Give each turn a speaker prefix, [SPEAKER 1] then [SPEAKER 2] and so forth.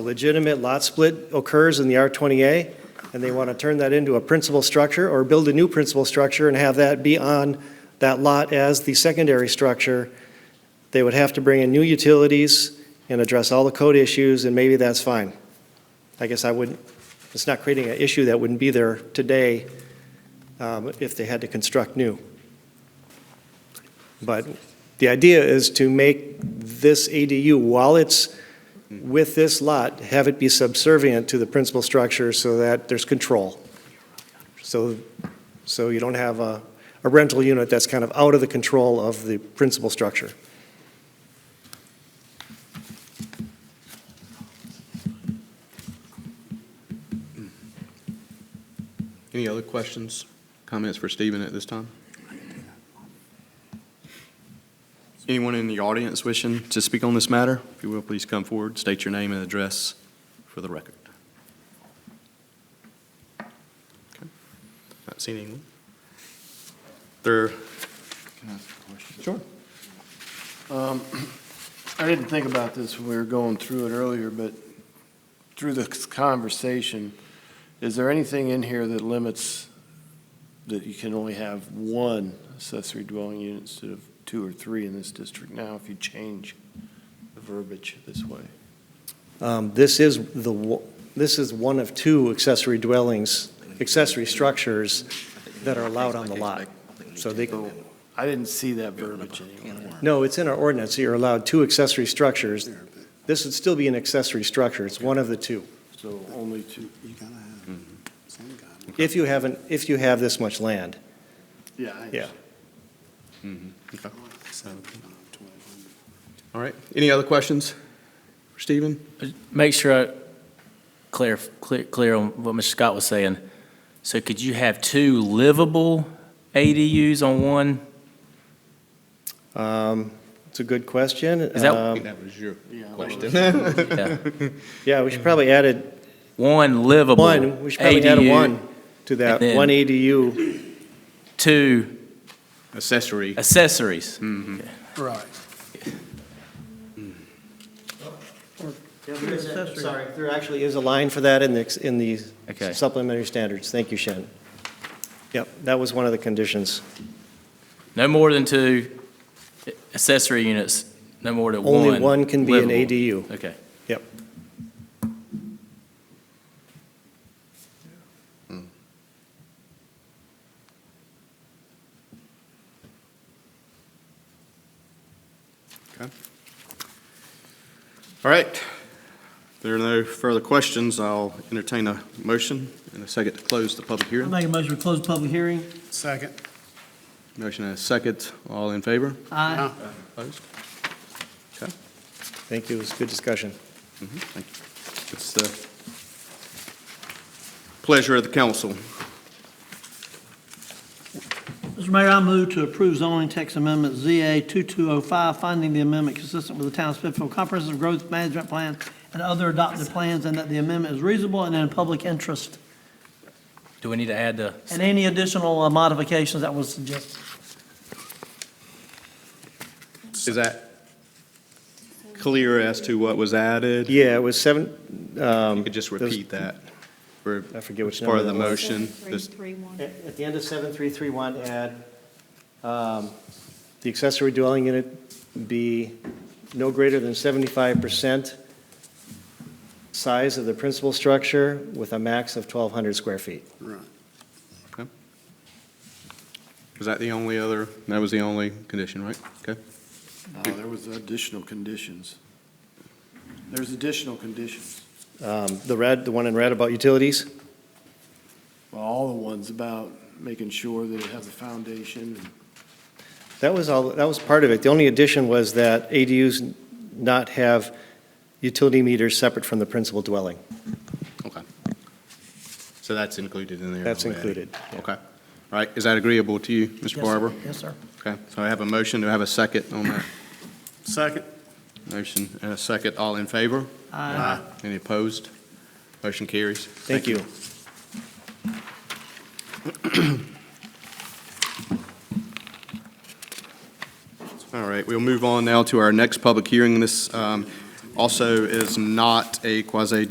[SPEAKER 1] A legitimate lot split occurs in the R20A, and they want to turn that into a principal structure or build a new principal structure and have that be on that lot as the secondary structure, they would have to bring in new utilities and address all the code issues, and maybe that's fine. I guess I wouldn't, it's not creating an issue that wouldn't be there today um, if they had to construct new. But the idea is to make this ADU, while it's with this lot, have it be subservient to the principal structure so that there's control. So, so you don't have a a rental unit that's kind of out of the control of the principal structure.
[SPEAKER 2] Any other questions, comments for Stephen at this time? Anyone in the audience wishing to speak on this matter? If you will, please come forward, state your name and address for the record. Okay. Not seeing anyone. There,
[SPEAKER 3] Can I ask a question?
[SPEAKER 2] sure.
[SPEAKER 3] Um, I didn't think about this when we were going through it earlier, but through this conversation, is there anything in here that limits that you can only have one accessory dwelling unit instead of two or three in this district now if you change the verbiage this way?
[SPEAKER 1] Um, This is the, wo- this is one of two accessory dwellings, accessory structures that are allowed on the lot. So they,
[SPEAKER 3] I didn't see that verbiage anywhere.
[SPEAKER 1] no, it's in our ordinance, you're allowed two accessory structures. This would still be an accessory structure, it's one of the two.
[SPEAKER 3] So only two,
[SPEAKER 4] You gotta have some guy.
[SPEAKER 1] If you haven't, if you have this much land,
[SPEAKER 3] yeah. I-
[SPEAKER 1] Yeah.
[SPEAKER 2] Mm-hmm. Okay.
[SPEAKER 4] Seventeen on twelve hundred.
[SPEAKER 2] All right. Any other questions for Stephen?
[SPEAKER 5] Make sure I clear, clear, clear on what Mr. Scott was saying. So could you have two livable ADUs on one?
[SPEAKER 1] um, it's a good question.
[SPEAKER 5] Is that-
[SPEAKER 1] Um,
[SPEAKER 2] that was your
[SPEAKER 3] Yeah.
[SPEAKER 5] Yeah.
[SPEAKER 1] Yeah, we should probably add it,
[SPEAKER 5] One livable
[SPEAKER 1] one, we should probably add a
[SPEAKER 5] ADU,
[SPEAKER 1] one to that,
[SPEAKER 5] and then-
[SPEAKER 1] one ADU.
[SPEAKER 5] Two
[SPEAKER 2] Accessory.
[SPEAKER 5] accessories.
[SPEAKER 1] Hmm.
[SPEAKER 4] Right.
[SPEAKER 1] Sorry, there actually is a line for that in the, in the
[SPEAKER 5] Okay.
[SPEAKER 1] supplementary standards. Thank you, Shannon. Yep, that was one of the conditions.
[SPEAKER 5] No more than two accessory units, no more than one.
[SPEAKER 1] Only one can be an
[SPEAKER 5] livable.
[SPEAKER 1] ADU.
[SPEAKER 5] Okay.
[SPEAKER 1] Yep.
[SPEAKER 2] All right. If there are no further questions, I'll entertain a motion in a second to close the public
[SPEAKER 6] I
[SPEAKER 2] hearing.
[SPEAKER 6] make a motion to close the public hearing.
[SPEAKER 4] Second.
[SPEAKER 2] Motion and a second. All in favor?
[SPEAKER 6] Aye.
[SPEAKER 2] Opposed? Okay.
[SPEAKER 1] Thank you, it was a good discussion.
[SPEAKER 2] Mhm. Thank you. It's the pleasure of the council.
[SPEAKER 6] Mr. Mayor, I move to approve zoning text amendment ZA 2205, finding the amendment consistent with the town of Smithfield Comprehensive Growth Management Plan and other adopted plans, and that the amendment is reasonable and in public interest,
[SPEAKER 5] Do we need to add the,
[SPEAKER 6] and any additional uh, modifications that was suggested.
[SPEAKER 2] Is that clear as to what was added?
[SPEAKER 1] Yeah, it was seven, um.
[SPEAKER 2] You could just
[SPEAKER 1] those-
[SPEAKER 2] repeat that. for-
[SPEAKER 1] I forget which
[SPEAKER 2] as Part of
[SPEAKER 1] number
[SPEAKER 2] the
[SPEAKER 1] that was.
[SPEAKER 2] motion. This-
[SPEAKER 1] At at the end of 7331, add, um, the accessory dwelling unit be no greater than 75% size of the principal structure with a max of 1,200 square feet.
[SPEAKER 4] Right.
[SPEAKER 2] Was that the only other, that was the only condition, right? Okay.
[SPEAKER 3] No, oh, there was additional conditions. There's additional conditions.
[SPEAKER 1] Um, The red, the one in red about utilities?
[SPEAKER 3] Well, all the ones about making sure that it has a foundation.
[SPEAKER 1] That was all, that was part of it. The only addition was that ADUs not have utility meters separate from the principal dwelling.
[SPEAKER 2] Okay. So that's included in there?
[SPEAKER 1] That's
[SPEAKER 2] already?
[SPEAKER 1] included, yeah.
[SPEAKER 2] Okay. All right, is that agreeable to you, Mr.
[SPEAKER 6] Yes, sir.
[SPEAKER 2] Barber?
[SPEAKER 6] Yes, sir.
[SPEAKER 2] Okay, so I have a motion, do I have a second on that?
[SPEAKER 3] Second.
[SPEAKER 2] Motion and a second, all in favor?
[SPEAKER 6] Aye.
[SPEAKER 2] Any opposed? Motion carries.
[SPEAKER 1] Thank you.
[SPEAKER 2] All right, we'll move on now to our next public hearing. This um, also is not a quasi